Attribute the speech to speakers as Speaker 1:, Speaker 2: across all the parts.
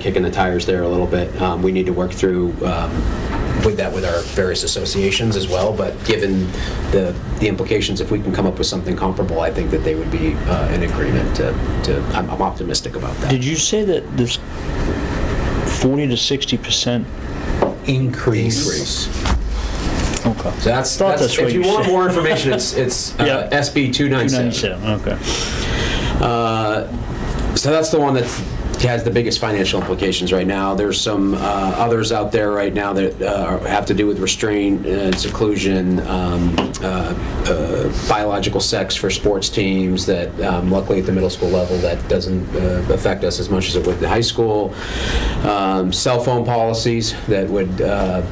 Speaker 1: kicking the tires there a little bit. Um, We need to work through um, with that with our various associations as well, but given the the implications, if we can come up with something comparable, I think that they would be uh, in agreement to, to- I'm I'm optimistic about that.
Speaker 2: Did you say that this 40 to 60 percent?
Speaker 3: increase.
Speaker 1: Increase.
Speaker 2: Okay.
Speaker 1: So that's,
Speaker 2: Thought
Speaker 1: that's-
Speaker 2: that's what
Speaker 1: if you
Speaker 2: you
Speaker 1: want
Speaker 2: said.
Speaker 1: more information, it's it's uh,
Speaker 2: Yeah.
Speaker 1: SB 297.
Speaker 2: 297, okay.
Speaker 1: So that's the one that has the biggest financial implications right now. There's some uh, others out there right now that uh, have to do with restraint, uh, seclusion, um, uh, uh, biological sex for sports teams that um, luckily at the middle school level, that doesn't uh, affect us as much as it would the high school. Um, Cell phone policies that would uh,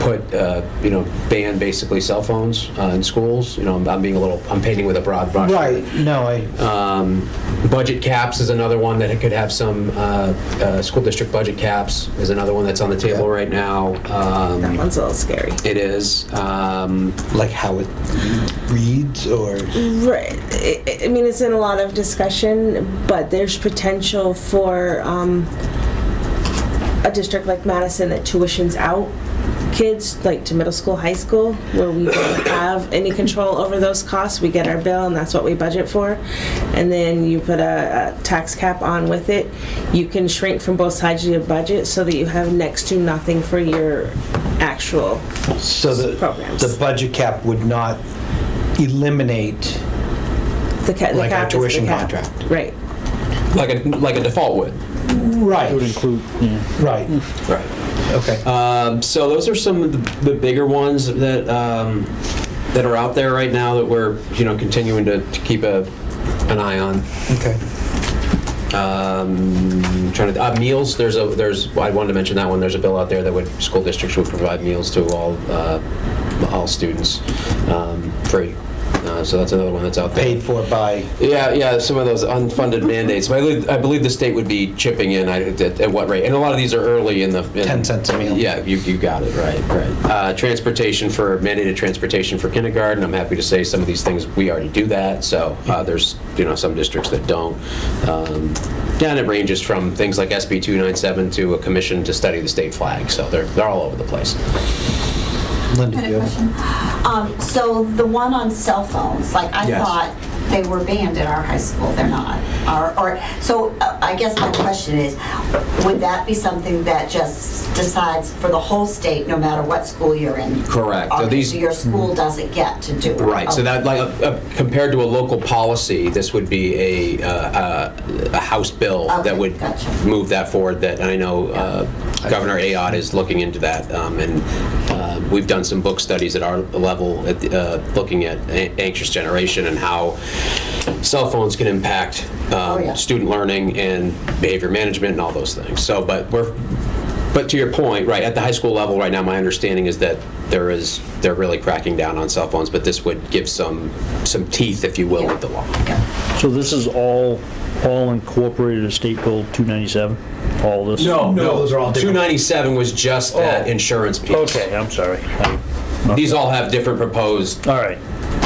Speaker 1: put, uh, you know, ban basically cell phones uh, in schools. You know, I'm- I'm being a little, I'm painting with a broad brush.
Speaker 3: Right, no, I, uh,
Speaker 1: Um, Budget caps is another one that it could have some, uh, uh, school district budget caps is another one that's on the table right now.
Speaker 4: That
Speaker 1: Um,
Speaker 4: one's a little scary.
Speaker 1: It is. um,
Speaker 3: like how it reads or,
Speaker 4: Right. I- I I mean, it's in a lot of discussion, but there's potential for um, a district like Madison that tuitions out kids, like to middle school, high school, where we don't have any control over those costs. We get our bill, and that's what we budget for. And then you put a, a tax cap on with it. You can shrink from both sides of your budget so that you have next to nothing for your actual
Speaker 3: so the,
Speaker 4: Programs.
Speaker 3: the budget cap would not eliminate,
Speaker 4: the, ca- the
Speaker 3: Like our
Speaker 4: cap is the
Speaker 3: tuition
Speaker 4: cap.
Speaker 3: contract.
Speaker 4: Right.
Speaker 1: Like a, like a default would.
Speaker 2: It would
Speaker 3: right,
Speaker 2: include, yeah.
Speaker 3: right,
Speaker 1: Right.
Speaker 3: okay.
Speaker 1: Um, so those are some of the, the bigger ones that um, that are out there right now that we're you know continuing to, to keep a an eye on.
Speaker 3: Okay.
Speaker 1: Um, trying to uh, meals. There's a there's I wanted to mention that one. There's a bill out there that would school districts would provide meals to all uh, all students um, free. Uh, so that's another one that's out there.
Speaker 3: Paid for by,
Speaker 1: Yeah, yeah, some of those unfunded mandates. But I believe, I believe the state would be chipping in I- at, at what rate? And a lot of these are early in the. in-
Speaker 3: 10 cents a meal.
Speaker 1: Yeah, you, you got it, right, right. Uh, transportation for, mandated transportation for kindergarten. I'm happy to say some of these things, we already do that. So uh, there's, you know, some districts that don't. Um, yeah, and it ranges from things like SB 297 to a commission to study the state flag. So they're, they're all over the place.
Speaker 3: Linda,
Speaker 5: I
Speaker 3: do
Speaker 5: had
Speaker 3: you
Speaker 5: a
Speaker 3: have-
Speaker 5: question. Um, so the one on cell phones, like I
Speaker 1: Yes.
Speaker 5: thought they were banned at our high school, they're not. Or, or, so uh, I guess my question is, would that be something that just decides for the whole state, no matter what school you're in?
Speaker 1: Correct. So
Speaker 5: Okay,
Speaker 1: these- Mm.
Speaker 5: So your school doesn't get to do it? Oh,
Speaker 1: Right, so
Speaker 5: Okay.
Speaker 1: that, like, uh, uh, compared to a local policy, this would be a, uh, uh, a House bill that
Speaker 5: Okay,
Speaker 1: would
Speaker 5: gotcha.
Speaker 1: move that forward, that I know uh, Governor Ayotte is looking into that, um, and uh, we've done some book studies at our level, at the, uh, looking at a- anxious generation and how cell phones can impact um,
Speaker 5: Oh, yeah.
Speaker 1: student learning and behavior management and all those things. So, but we're, but to your point, right, at the high school level right now, my understanding is that there is, they're really cracking down on cell phones, but this would give some, some teeth, if you will, with the law.
Speaker 2: So this is all, all incorporated as State Bill 297? All this?
Speaker 3: No, Oh, those are all different.
Speaker 1: 297 was just that
Speaker 2: Oh.
Speaker 1: insurance piece.
Speaker 2: Okay, I'm sorry. I-
Speaker 1: These all have different proposed
Speaker 2: All right,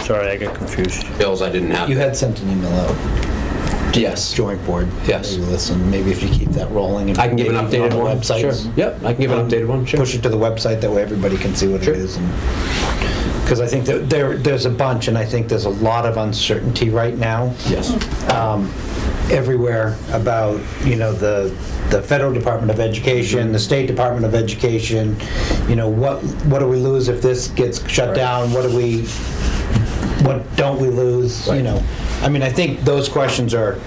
Speaker 2: sorry, I got confused.
Speaker 1: bills I didn't have.
Speaker 3: you had sent an email out,
Speaker 1: Yes.
Speaker 3: joint board.
Speaker 1: Yes.
Speaker 3: Maybe Listen, maybe if you keep that rolling. and
Speaker 1: I can give an
Speaker 3: maybe on
Speaker 1: updated
Speaker 3: the
Speaker 1: one.
Speaker 3: websites. Um,
Speaker 1: Sure. Yep, I can give an updated one, sure.
Speaker 3: Push it to the website, that way everybody can see what it is. Because I think that there, there's a bunch, and I think there's a lot of uncertainty right now
Speaker 1: Yes.
Speaker 3: um, everywhere about, you know, the, the federal Department of Education, the state Department of Education, you know, what, what do we lose if this gets shut down? What do we, what don't we lose, you
Speaker 1: Right.
Speaker 3: know? I mean, I think those questions are,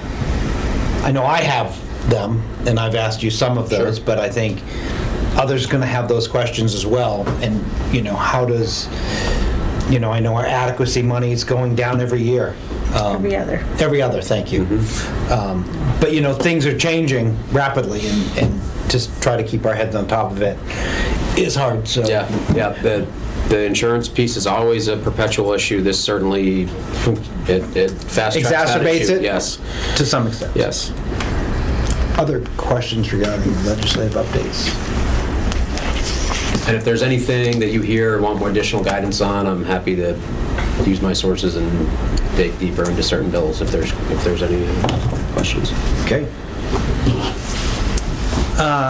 Speaker 3: I know I have them, and I've asked you some of those, but I think others going to have those questions as well. And, you know, how does, you know, I know our adequacy money is going down every year. Um,
Speaker 4: Every other.
Speaker 3: Every other, thank you. Um, But, you know, things are changing rapidly, and- and just try to keep our heads on top of it is hard, so.
Speaker 1: Yeah, yeah, the, the insurance piece is always a perpetual issue. This certainly, it it fast tracks that
Speaker 3: Exacerbates
Speaker 1: issue.
Speaker 3: it?
Speaker 1: Yes,
Speaker 3: To some extent.
Speaker 1: yes.
Speaker 3: Other questions regarding legislative updates?
Speaker 1: And if there's anything that you hear or want more additional guidance on, I'm happy to use my sources and dig deeper into certain bills if there's, if there's any uh, questions.
Speaker 3: Okay. Uh,